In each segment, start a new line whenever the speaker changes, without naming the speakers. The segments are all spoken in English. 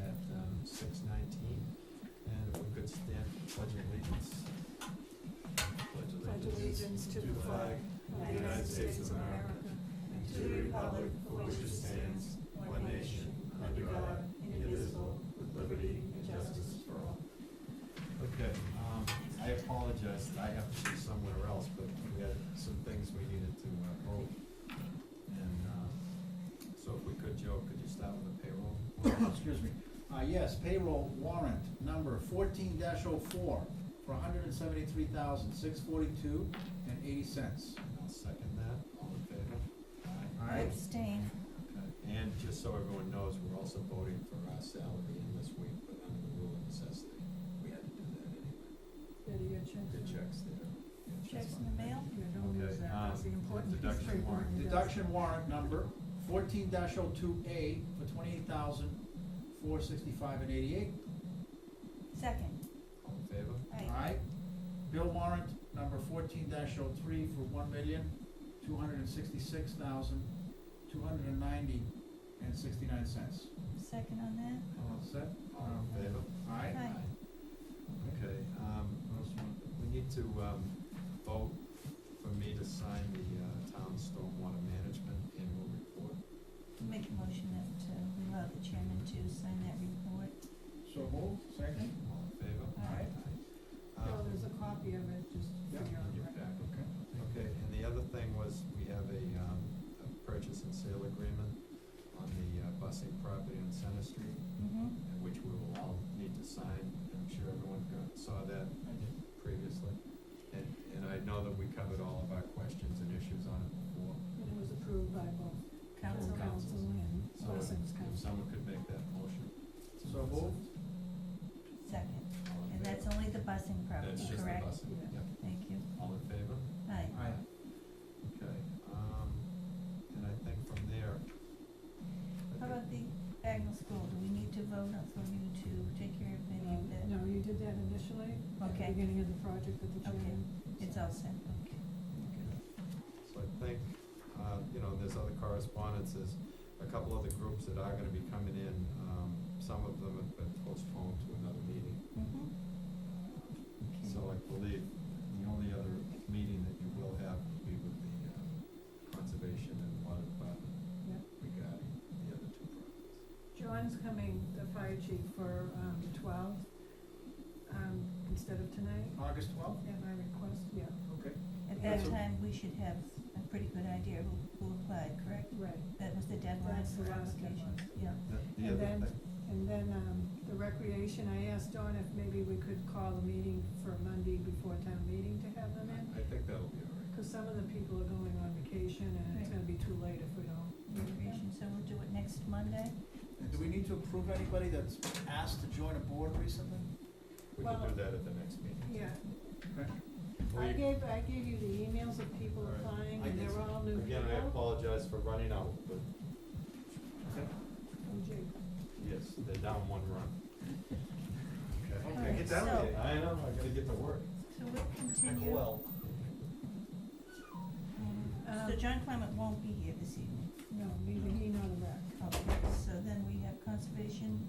at um, six nineteen, and if we could stand for pledge allegiance.
Pledge allegiance to the flag of the United States of America and to the republic for which it stands, one nation, under God, indivisible, with liberty and justice for all.
Okay, um, I apologize that I have to be somewhere else, but we had some things we needed to uh, vote. And, uh, so if we could, Joe, could you start with the payroll?
excuse me, uh, yes, payroll warrant number fourteen oh. 4 for hundred and seventy-three thousand, six forty-two and eighty cents.
I'll second that, all in favor? Aye.
Aye.
Abstain.
Okay. And just so everyone knows, we're also voting for our salary in this week, but under the rule of necessity, we had to do that anyway.
Betty, your checks.
The checks there. Yeah,
Checks in the mail?
Yeah, don't lose
Okay,
that, that's the
um,
important piece of
deduction
paper
warrant.
when you do it.
Deduction warrant number fourteen 2 A for twenty-eight thousand, four sixty-five and eighty-eight.
Second.
All in favor?
Aye.
Aye. Bill warrant number fourteen 3 for one million, two hundred and sixty-six thousand, two hundred and ninety and sixty-nine cents.
Second on
All set? Um,
All in favor?
Aye.
Aye.
Okay, um, we need to, um, vote for me to sign the, uh, town stormwater management annual report.
that. Make a motion that uh, we allow the chairman to sign that report.
So moved, second?
All in favor?
Aye.
Aye.
No,
Um,
there's a copy of it, just
Yeah.
for your
in your
record.
packet. Okay, and the other thing was, we have a, um, a purchase and sale agreement on the uh, busing property on Center Street,
Mm-hmm.
uh, which we will all need to sign, I'm sure everyone got, saw that previously. And, and I know that we covered all of our questions and issues on it before,
And it was approved by both
Council.
council council and
so
Blessings
if
Council.
someone could make that motion.
So moved.
Second.
All in
And that's
favor?
only the busing
That's
property,
just the
correct?
busing,
Yeah.
yep,
Thank you.
all in favor?
Aye.
Aye.
Okay, um, and I think from there. I
How
think-
about the Bagnell School? Do we need to vote on for you to take care of any of that?
uh, No, you did that initially, at the
Okay.
beginning of the project with the
Okay.
chairman.
It's all set, okay.
So I think, uh, you know, there's other correspondences, a couple other groups that are gonna be coming in, um, some of them have been postponed to another meeting.
Mm-hmm.
So I believe the only other meeting that you will have will be with the, um, conservation and water department
Yeah.
regarding the other two projects.
John's coming, the fire chief, for um, the twelfth, um, instead of tonight,
August twelfth?
at my request, yeah,
Okay.
At that
That's a-
time, we should have a pretty good idea who, who applied, correct?
right.
That was the deadline
That's the
for
last
applications,
deadline.
yeah.
The, the
And
other
then-
thing,
And then um, the recreation, I asked Dawn if maybe we could call a meeting for Monday before town meeting to have them in,
I think that'll be all right.
because some of the people are going on vacation, and it's
Right.
gonna be too late if we don't.
Recreation, so we'll do it next Monday?
And do we need to approve anybody that's asked to join a board recently?
We can
Well-
do that at the next meeting.
Yeah,
Okay.
Or
I
you-
gave, I gave you the emails of people
All right.
applying,
I
and
did
they're all new people.
Again, I apologize for running out, but
From Jake.
yes, they're down one run. Okay.
Okay, get down
Alright,
with it.
I know, I gotta get to work.
So we'll continue.
Well,
So John Clement won't be here this evening.
No, neither he nor the rec,
Okay, so then we have conservation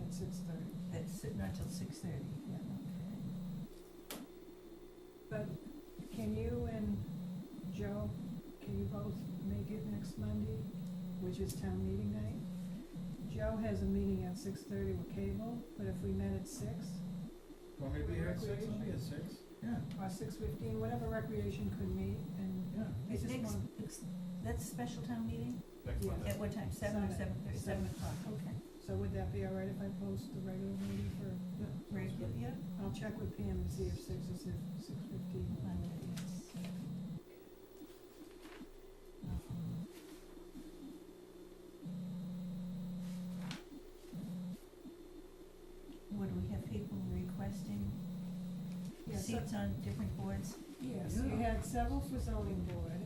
at six thirty.
that's not till six thirty.
Yeah.
Okay.
But can you and Joe, can you both make it next Monday, which is town meeting night? Joe has a meeting at six thirty with cable, but if we met at six,
Want me to be here at six? I'll be at six. Yeah,
or six fifteen, whatever recreation could meet, and
yeah.
I just
Next-
want-
ex- That's a special town meeting?
Next
Yeah.
Monday.
At what time? Seven or
Seven.
seven thirty? Seven o'clock, okay.
so would that be all right if I post the regular meeting for,
Yeah.
Regular, yeah?
I'll check with Pam and see if six is if six fifteen.
Monday, yes. Um, What do we have people requesting
Yeah, so,
seats on different boards?
yes, you had several for zoning board,